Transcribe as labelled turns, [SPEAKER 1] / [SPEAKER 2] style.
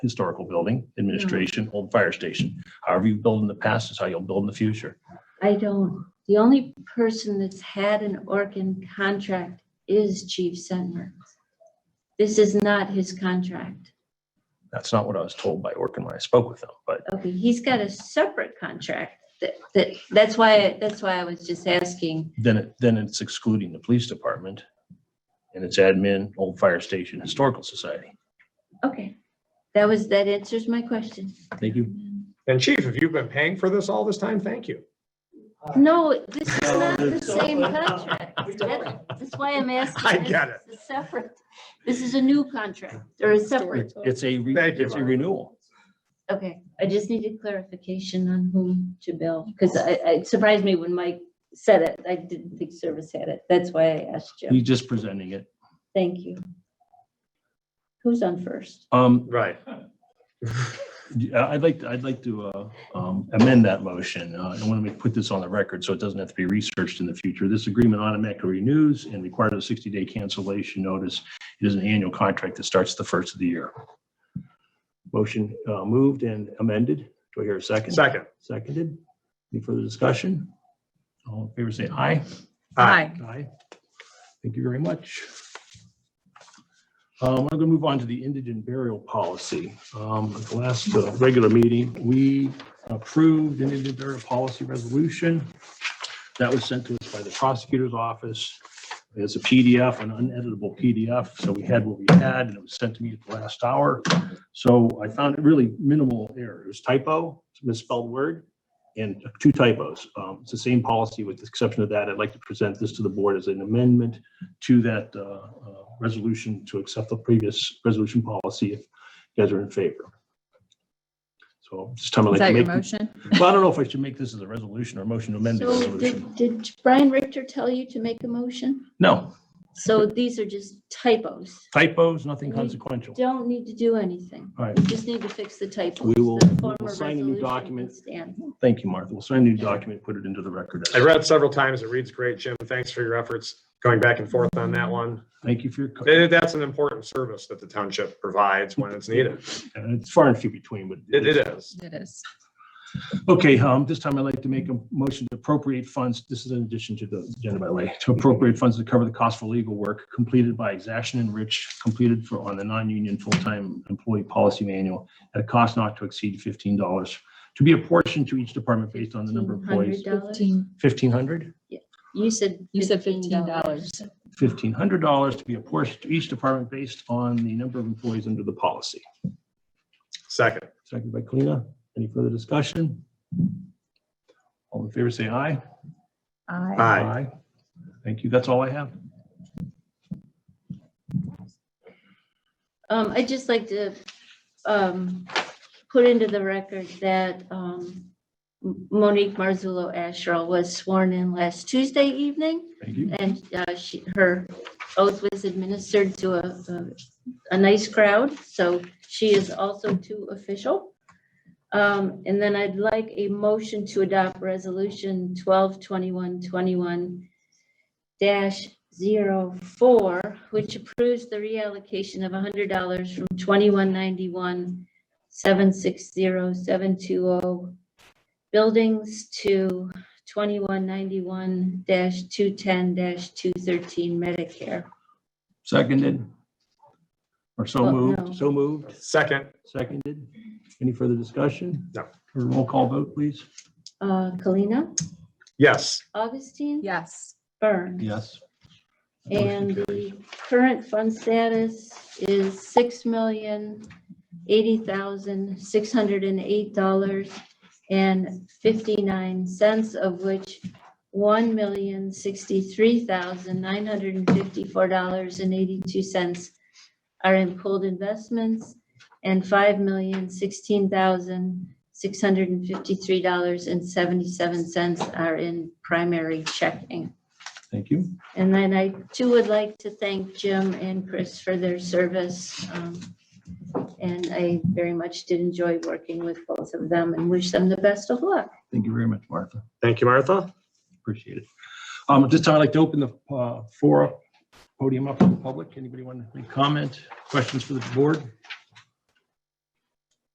[SPEAKER 1] historical building, administration, old fire station. However you build in the past is how you'll build in the future.
[SPEAKER 2] I don't, the only person that's had an Orkin contract is Chief Sentmer. This is not his contract.
[SPEAKER 1] That's not what I was told by Orkin when I spoke with them, but
[SPEAKER 2] Okay, he's got a separate contract. That, that, that's why, that's why I was just asking.
[SPEAKER 1] then it, then it's excluding the police department and it's admin, old fire station, historical society.
[SPEAKER 2] Okay, that was, that answers my question.
[SPEAKER 1] Thank you.
[SPEAKER 3] And chief, if you've been paying for this all this time, thank you.
[SPEAKER 2] No, this is not the same contract. That- That's why I'm asking.
[SPEAKER 3] I get it.
[SPEAKER 2] This is separate. This is a new contract or a separate.
[SPEAKER 1] It's it's a, re-
[SPEAKER 3] Thank you,
[SPEAKER 1] it's a
[SPEAKER 3] Mark.
[SPEAKER 1] renewal.
[SPEAKER 2] Okay, I just needed clarification on whom to bill, because I, I- it surprised me when Mike said it. I didn't think service had it. That's why I asked you.
[SPEAKER 1] He's just presenting it.
[SPEAKER 2] Thank you. Who's on first?
[SPEAKER 1] Um,
[SPEAKER 3] Right.
[SPEAKER 1] Yeah, I'd like, I'd like to uh, um, amend that motion. Uh, I want to put this on the record so it doesn't have to be researched in the future. This agreement automatically renews and requires a 60-day cancellation notice. It is an annual contract that starts the first of the year. Motion uh, moved and amended. Do I hear a second?
[SPEAKER 3] Second.
[SPEAKER 1] Seconded. Any further discussion? All in favor, say aye.
[SPEAKER 3] Aye.
[SPEAKER 1] Aye. Thank you very much. Um, I'm going to move on to the indigent burial policy. Um, At the last uh, regular meeting, we approved indigent burial policy resolution. That was sent to us by the prosecutor's office. It's a PDF, an uneditable PDF, so we had what we had, and it was sent to me at the last hour. So I found it really minimal error. It was typo, it's a misspelled word, and two typos. Um, It's the same policy with the exception of that. I'd like to present this to the board as an amendment to that uh, uh, resolution to accept the previous resolution policy if you guys are in favor. So just time I'd like
[SPEAKER 4] Is that
[SPEAKER 1] to
[SPEAKER 4] your
[SPEAKER 1] make.
[SPEAKER 4] motion?
[SPEAKER 1] Well, I don't know if I should make this as a resolution or a motion to amend the
[SPEAKER 2] So
[SPEAKER 1] resolution.
[SPEAKER 2] did, did Brian Richter tell you to make a motion?
[SPEAKER 1] No,
[SPEAKER 2] So these are just typos.
[SPEAKER 1] typos, nothing consequential.
[SPEAKER 2] Don't need to do anything.
[SPEAKER 1] All right,
[SPEAKER 2] You just need to fix the typos.
[SPEAKER 1] We will-
[SPEAKER 2] The
[SPEAKER 1] we will
[SPEAKER 2] former
[SPEAKER 1] sign a new
[SPEAKER 2] resolution can
[SPEAKER 1] document.
[SPEAKER 2] stand.
[SPEAKER 1] thank you, Martha. We'll sign a new document, put it into the record.
[SPEAKER 3] I read it several times. It reads great, Jim. Thanks for your efforts going back and forth on that one.
[SPEAKER 1] Thank you for your, co-
[SPEAKER 3] Eh, That's an important service that the township provides when it's needed.
[SPEAKER 1] and uh, it's far and few between, but.
[SPEAKER 3] It it is.
[SPEAKER 4] It is.
[SPEAKER 1] Okay, um, this time I'd like to make a motion to appropriate funds. This is in addition to the agenda, by the way, to appropriate funds to cover the cost for legal work completed by Exaction and Rich, completed for, on the non-union full-time employee policy manual at a cost not to exceed fifteen dollars, to be apportioned to each department based on the number of employees.
[SPEAKER 2] $1,500?
[SPEAKER 1] Fifteen hundred?
[SPEAKER 2] You said.
[SPEAKER 4] You said $15.
[SPEAKER 1] fifteen hundred dollars to be apportioned to each department based on the number of employees under the policy.
[SPEAKER 3] Second.
[SPEAKER 1] Second by Kalina. Any further discussion? All in favor, say aye.
[SPEAKER 4] Aye.
[SPEAKER 3] Aye.
[SPEAKER 1] Thank you. That's all I have.
[SPEAKER 2] Um, I'd just like to, um, put into the record that, um, Monique Marzullo Asherle was sworn in last Tuesday evening
[SPEAKER 1] Thank you.
[SPEAKER 2] and, uh, she, her oath was administered to a, a, a nice crowd. So she is also too official. Um, and then I'd like a motion to adopt resolution twelve twenty-one twenty-one dash zero four, which approves the reallocation of hundred dollars from twenty-one ninety-one seven six zero seven two oh buildings to twenty-one ninety-one two ten two thirteen Medicare.
[SPEAKER 1] Seconded. Or so
[SPEAKER 2] Well, Oh, no.
[SPEAKER 1] moved, so moved,
[SPEAKER 3] Second.
[SPEAKER 1] seconded. Any further discussion?
[SPEAKER 3] No.
[SPEAKER 1] Roll call vote, please.
[SPEAKER 2] Uh, Kalina,
[SPEAKER 3] Yes.
[SPEAKER 2] Augustine,
[SPEAKER 4] Yes.
[SPEAKER 2] Byrne.
[SPEAKER 1] Yes.
[SPEAKER 2] And the current fund status is six million, eighty thousand, six hundred and eight dollars and fifty-nine cents, of which one million, sixty-three thousand, nine hundred and fifty-four dollars and eighty-two cents are in pooled investments, and five million, sixteen thousand, six hundred and fifty-three dollars and seventy-seven cents are in primary checking.
[SPEAKER 1] Thank you.
[SPEAKER 2] And then I too would like to thank Jim and Chris for their service. um, And I very much did enjoy working with both of them and wish them the best of luck.
[SPEAKER 1] Thank you very much, Martha.
[SPEAKER 3] Thank you, Martha.
[SPEAKER 1] Appreciate it. Um, at this time, I'd like to open the, uh, forum, podium up to the public. Anybody want to make comment, questions for the board?